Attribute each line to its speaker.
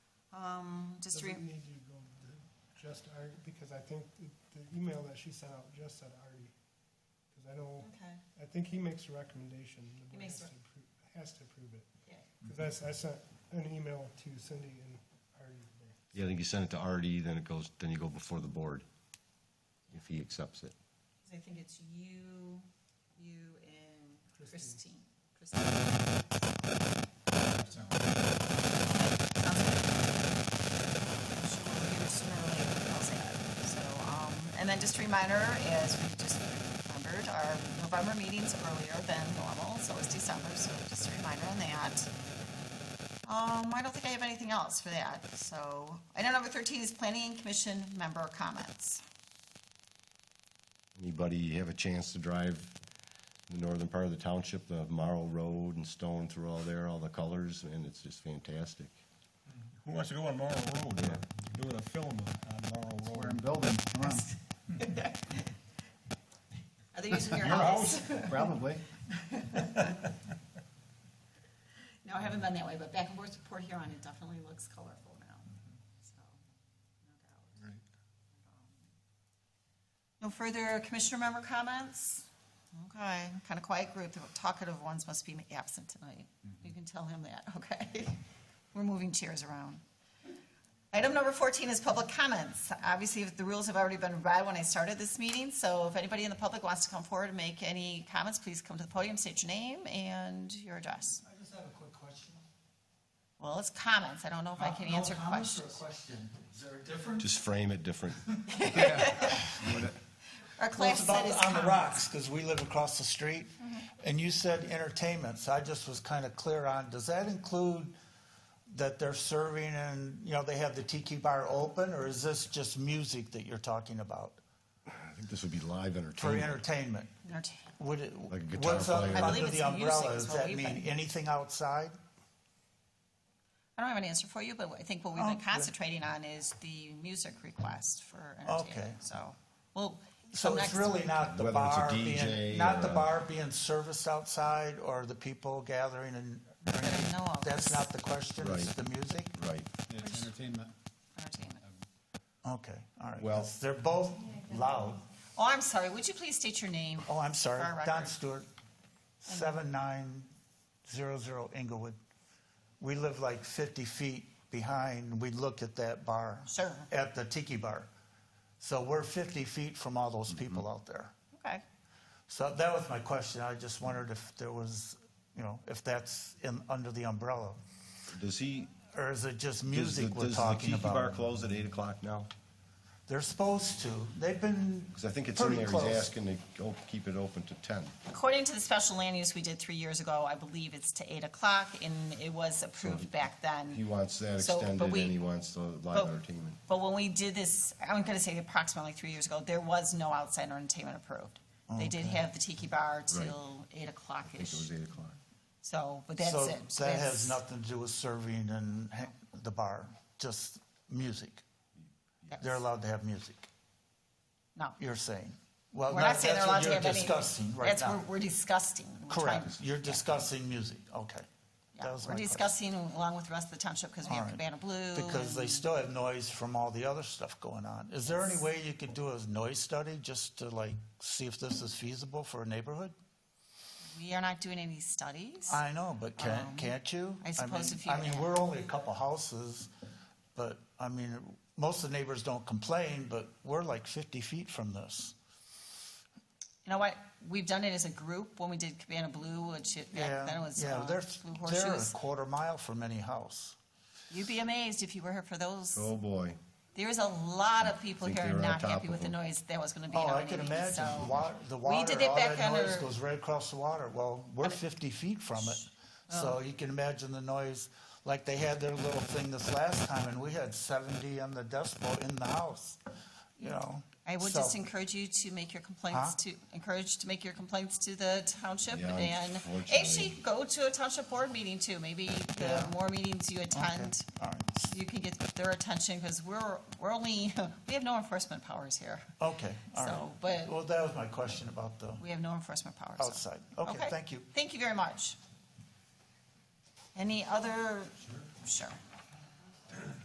Speaker 1: um, just to,
Speaker 2: Does it
Speaker 1: re-
Speaker 2: need to go to just Artie, because I think the the email that she sent out just said Artie. Because I know,
Speaker 1: okay,
Speaker 2: I think he makes a recommendation. The board
Speaker 1: makes
Speaker 2: has
Speaker 1: a-
Speaker 2: to appro- Has to approve it.
Speaker 1: yeah.
Speaker 2: Because I, I sent an email to Cindy and Artie today.
Speaker 3: Yeah, I think you send it to RD, then it goes, then you go before the board, if he accepts it.
Speaker 1: 'Cause I think it's you, you and Christine.
Speaker 2: Christine.
Speaker 1: Christine.
Speaker 4: Sounds
Speaker 1: I'm
Speaker 4: like
Speaker 1: sure we'll get it sooner or later, I'll say that. So, um, and then just a reminder, as we just remembered, our November meeting's earlier than normal, so it's December, so just a reminder on that. Um, I don't think I have anything else for that, so. Item number thirteen is planning commission member comments.
Speaker 3: Anybody have a chance to drive the northern part of the township, the Marl Road and Stone through all there, all the colors, and it's just fantastic.
Speaker 5: Who wants to go on Morrow Road? They're Doing a film on Morrow
Speaker 4: We're in
Speaker 5: Road.
Speaker 4: building, come on.
Speaker 1: Are they using your
Speaker 5: Your
Speaker 1: house?
Speaker 4: Probably.
Speaker 1: No, I haven't been that way, but back and forth to Port Huron, it definitely looks colorful now, so, no doubt.
Speaker 5: Right.
Speaker 1: No further commissioner member comments? Okay, kind of quiet group, the talkative ones must be absent tonight. You can tell him that, okay? We're moving chairs around. Item number 14 is public comments. Obviously, the rules have already been read when I started this meeting, so if anybody in the public wants to come forward and make any comments, please come to the podium, state your name and your address.
Speaker 6: I just have a quick question.
Speaker 1: Well, it's comments, I don't know if I can
Speaker 6: Uh, No
Speaker 1: answer
Speaker 6: comments or a
Speaker 1: questions.
Speaker 6: question? Is there a difference?
Speaker 3: Just frame it different.
Speaker 1: Our class
Speaker 6: Well,
Speaker 1: said it's
Speaker 6: it's about On the
Speaker 1: comments.
Speaker 6: rocks, because we live across the street,
Speaker 1: Mm-hmm.
Speaker 6: and you said entertainment, so I just was kind of clear on, does that include that they're serving and, you know, they have the tiki bar open, or is this just music that you're talking about
Speaker 3: I think this would be live
Speaker 6: for
Speaker 3: entertainment.
Speaker 6: entertainment?
Speaker 1: Entertain-
Speaker 6: Would it,
Speaker 3: Like a guitar
Speaker 6: what's up
Speaker 3: player. I
Speaker 1: believe
Speaker 6: under
Speaker 1: it's
Speaker 6: the umbrella?
Speaker 1: music is
Speaker 6: Does
Speaker 1: what
Speaker 6: that
Speaker 1: we've
Speaker 6: mean
Speaker 1: been-
Speaker 6: anything outside?
Speaker 1: I don't have an answer for you, but I think what we've been
Speaker 6: Okay.
Speaker 1: concentrating on is the music request for entertainment,
Speaker 6: Okay.
Speaker 1: so, well.
Speaker 6: So
Speaker 1: come
Speaker 6: it's
Speaker 1: next
Speaker 6: really
Speaker 1: week.
Speaker 6: not the
Speaker 3: Whether it's a
Speaker 6: bar
Speaker 3: DJ
Speaker 6: being, not the
Speaker 3: or a-
Speaker 6: bar being serviced outside or the people gathering and.
Speaker 1: I know of.
Speaker 6: That's not the question, it's
Speaker 3: Right.
Speaker 6: the music?
Speaker 3: Right.
Speaker 4: It's entertainment.
Speaker 1: Entertainment.
Speaker 6: Okay, all right.
Speaker 3: Well-
Speaker 6: 'cause They're both loud.
Speaker 1: Oh, I'm sorry, would you please state your name?
Speaker 6: Oh, I'm sorry,
Speaker 1: For our
Speaker 6: Don
Speaker 1: record.
Speaker 6: Stewart, seven nine zero zero Inglewood. We live like fifty feet behind, we look at that bar.
Speaker 1: Sure.
Speaker 6: At the tiki bar. So we're fifty feet from all those people
Speaker 3: Mm-hmm.
Speaker 6: out there.
Speaker 1: Okay,
Speaker 6: So that was my question. I just wondered if there was, you know, if that's in, under the umbrella,
Speaker 3: Does he?
Speaker 6: or is it just
Speaker 3: does
Speaker 6: music
Speaker 3: the-
Speaker 6: we're talking
Speaker 3: Does the Tiki Bar
Speaker 6: about?
Speaker 3: close at eight o'clock now?
Speaker 6: They're supposed to. They've been
Speaker 3: Because I think it's in
Speaker 6: pretty
Speaker 3: there, he's
Speaker 6: close.
Speaker 3: asking to go keep it open to ten.
Speaker 1: according to the special land use we did three years ago, I believe it's to eight o'clock, and it was approved back then.
Speaker 3: He wants that
Speaker 1: So, but
Speaker 3: extended and
Speaker 1: we-
Speaker 3: he wants the live
Speaker 1: But-
Speaker 3: entertainment.
Speaker 1: But when we did this, I'm gonna say approximately three years ago, there was no outside entertainment approved. They did have the tiki bar till eight
Speaker 3: I think it
Speaker 1: o'clock-ish,
Speaker 3: was eight o'clock.
Speaker 1: so, but that's
Speaker 6: so
Speaker 1: it. So
Speaker 6: that
Speaker 1: that's-
Speaker 6: has nothing to do with serving and ha- the bar, just music.
Speaker 1: that's-
Speaker 6: They're allowed to have music.
Speaker 1: No.
Speaker 6: You're saying. Well,
Speaker 1: We're
Speaker 6: that-
Speaker 1: not saying they're
Speaker 6: that's
Speaker 1: allowed to
Speaker 6: what you're
Speaker 1: have any.
Speaker 6: discussing right
Speaker 1: That's,
Speaker 6: now.
Speaker 1: we're, we're discussing. We're
Speaker 6: Correct.
Speaker 1: trying-
Speaker 6: You're discussing music. Okay.
Speaker 1: yeah,
Speaker 6: that was
Speaker 1: We're
Speaker 6: my question.
Speaker 1: discussing along with the rest of the township because we have
Speaker 6: All right.
Speaker 1: Cabana Blue.
Speaker 6: Because they
Speaker 1: and-
Speaker 6: still have noise from all the other stuff going on. Is there any way you could do a noise study just to like see if this is feasible for a neighborhood?
Speaker 1: We are not doing any studies.
Speaker 6: I know, but can,
Speaker 1: Um,
Speaker 6: can't you?
Speaker 1: I suppose
Speaker 6: mean-
Speaker 1: if you
Speaker 6: I mean,
Speaker 1: add-
Speaker 6: we're only a couple houses, but I mean, most of the neighbors don't complain, but we're like fifty feet from this.
Speaker 1: You know what? We've done it as a group when we did Cabana Blue, which it, back then it
Speaker 6: Yeah,
Speaker 1: was,
Speaker 6: yeah,
Speaker 1: uh,
Speaker 6: they're,
Speaker 1: Blue
Speaker 6: they're a
Speaker 1: Horseshoes.
Speaker 6: quarter mile from any house.
Speaker 1: You'd be amazed if you were here for those.
Speaker 3: Oh, boy.
Speaker 1: There's a lot of people
Speaker 3: Think
Speaker 1: here
Speaker 3: they were on
Speaker 1: not
Speaker 3: top
Speaker 1: happy
Speaker 3: of
Speaker 1: with the
Speaker 3: them.
Speaker 1: noise that was gonna be in
Speaker 6: Oh,
Speaker 1: our
Speaker 6: I can
Speaker 1: meeting,
Speaker 6: imagine,
Speaker 1: so-
Speaker 6: wa- the
Speaker 1: We
Speaker 6: water,
Speaker 1: did it
Speaker 6: all
Speaker 1: back
Speaker 6: that noise
Speaker 1: under-
Speaker 6: goes right across the water. Well, we're fifty feet from it,
Speaker 1: Oh.
Speaker 6: so you can imagine the noise. Like they had their little thing this last time, and we had seventy on the decibel in the house, you know?
Speaker 1: I would
Speaker 6: So-
Speaker 1: just encourage you to make your complaints
Speaker 6: Huh?
Speaker 1: to, encourage to make your complaints to the township
Speaker 3: Yeah,
Speaker 1: and
Speaker 3: unfortunately.
Speaker 1: actually go to a township board meeting too. Maybe the
Speaker 6: Yeah.
Speaker 1: more meetings you attend,
Speaker 6: All right.
Speaker 1: you can get their attention because we're, we're only, we have no enforcement powers here.
Speaker 6: Okay, all right.
Speaker 1: So, but-
Speaker 6: Well, that was my question about the,
Speaker 1: We have no enforcement powers. so-
Speaker 6: Outside. Oh, Okay, thank you.
Speaker 1: Thank you very much. Any other, sure.